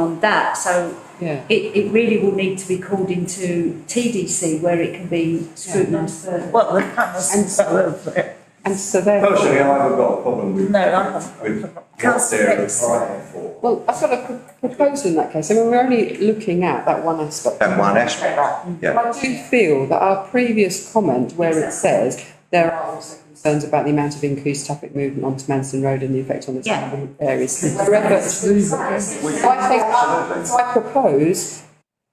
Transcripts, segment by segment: on that. So Yeah. it, it really will need to be called into TDC where it can be scrutinised further. Well, the panels are over it. And so therefore, Personally, Oh, I haven't got a problem with. No, I haven't. With what Councillor they're Hicks. applying for. well, I've got a pro- proposal in that case. I mean, we're only looking at that one aspect. That one aspect, yeah. I do feel that our previous comment where it says there are also concerns about the amount of increased traffic movement onto Manston Road and the effect on the surrounding areas. Wherever- So I think, so I propose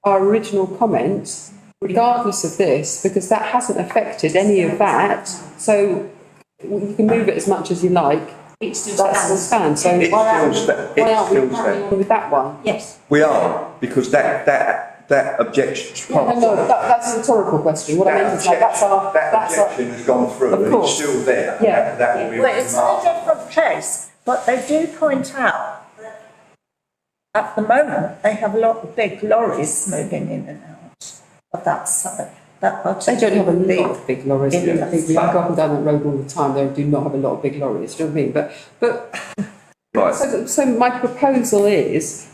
our original comment regardless of this, because that hasn't affected any of that. So you can move it as much as you like, It's just that still that. stands, so It why aren't still we, sta- it why aren't we still carrying on with that one? Yes. We are, because that, that, that objection's No, part. no, that, that's a rhetorical question, what I meant is like, that's our, That that's our, objection has gone through Of and it's course. still there. Yeah. That- That will be. Well, it's in a remarked. different place, but they do point out that at the moment, they have a lot of big lorries moving in and out of that side, that they bottom. don't have a lot of big lorries, Yeah. I think we go up and down that road all the time, they do not have a lot of big lorries, do you know what I mean? But, but Right, So, so my proposal is,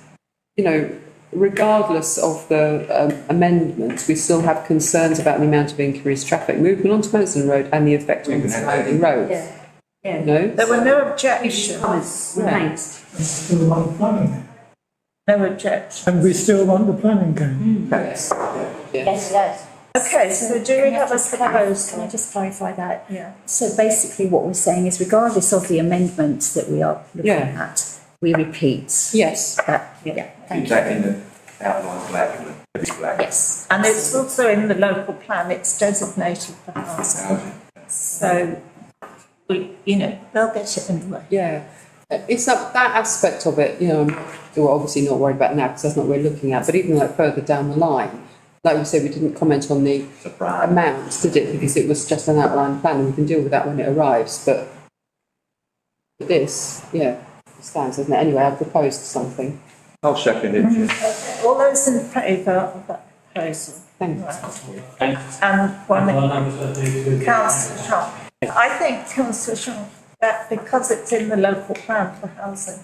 you know, regardless of the um, amendments, we still have concerns about the amount of increased traffic movement onto Manston Road and the effect We on can have that. surrounding roads. Yeah. Yeah. No? There were no Issue objections, comments remains. still want the planning. no objections. And we still want the planning going. Yes. Yes, yes. Okay, so do we have a Can I proposal? just clarify that? Yeah. So basically what we're saying is regardless of the amendments that we are looking Yeah. at, we repeat Yes. that, yeah, thank keep you. that in the outline black, and heavy black. Yes, And it's also in the local plan, it's designated for housing, Housing. so, we, you know, they'll get it anyway. Yeah. Uh, It's that, that aspect of it, you know, I'm- we're obviously not worried about now because that's not what we're looking at, but even like further down the line, like we said, we didn't comment on the It's a brand. amount, did it? Because it was just an outline plan and we can deal with that when it arrives, but this, yeah, stands, doesn't it? Anyway, I proposed something. I'll second it, Mm-hmm. yeah. All those in favour of that proposal? Thanks. And one Well, that was what they did. Councillor Shaw. I think Councillor Shaw, that because it's in the local plan for housing,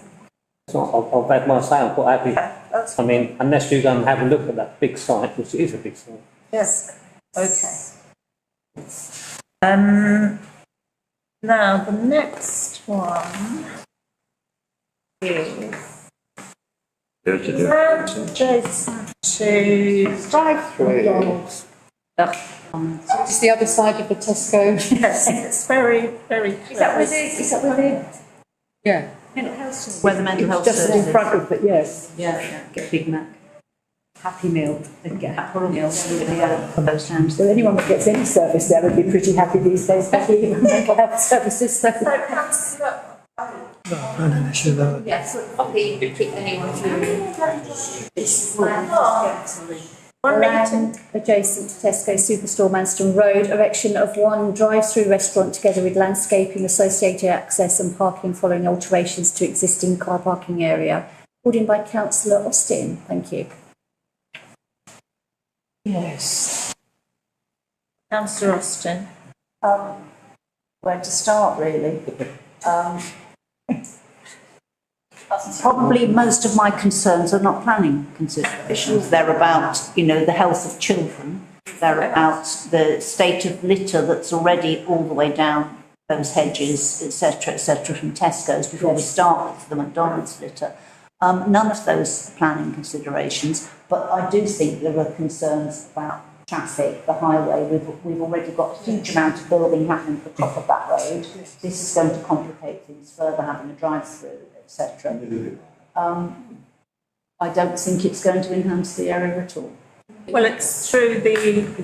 So I'll, I'll add my say on what Abby, that's, I mean, unless you go and have a look at that big site, which is a big site. yes, okay. Um, now, the next one is There's a difference. land adjacent to. Drive through. It's the other side of the Tesco. Yes, it's very, very Is that where close. the, is that where the Yeah. mental health? is? Where the mental health Just in front of it, yes. Yeah, yeah, get Big Mac. Happy Meal, they get Happy Meal, so they have those times. well, anyone that gets any service there would be pretty happy these days, especially even mental health services, so. So councillor, Not a planning issue, though. Yes, copy, pick anyone through. It's. one meeting, Land adjacent to Tesco Superstore Manston Road, erection of one drive-through restaurant together with landscaping, associated access and parking following alterations to existing car parking area. Called in by councillor Austin, thank you. councillor Austin. Um, where to start really. Um, Probably most of my concerns are not planning considerations. They're about, you know, the health of children. They're about the state of litter that's already all the way down those hedges, et cetera, et cetera, from Tesco's before we start with the McDonald's litter. Um, none of those are planning considerations, but I do think there are concerns about traffic, the highway. We've, we've already got a huge amount of building happening at the top of that road. This is going to complicate things further, having a drive-through, et cetera. Um, I don't think it's going to enhance the area at all. Well, it's through the,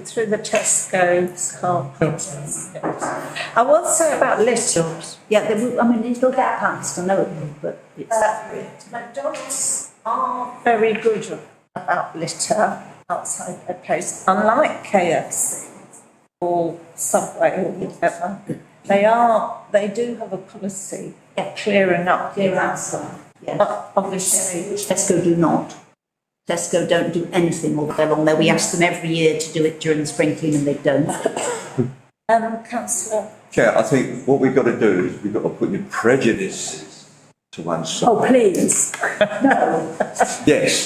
through the Tesco's car. I will say about Little, Yeah, there will, I mean, it'll get passed, I know it will, but it's. uh, McDonald's are very good about litter outside their place, unlike KFC or Subway or whatever. They are, they do have a policy of clearing up. Clear outside. Yeah. But obviously, Tesco do not. Tesco don't do anything all the way along there. We ask them every year to do it during the spring clean and they don't. um, councillor, Chair, I think what we've got to do is we've got to put your prejudices to one side. Oh, please. Yes.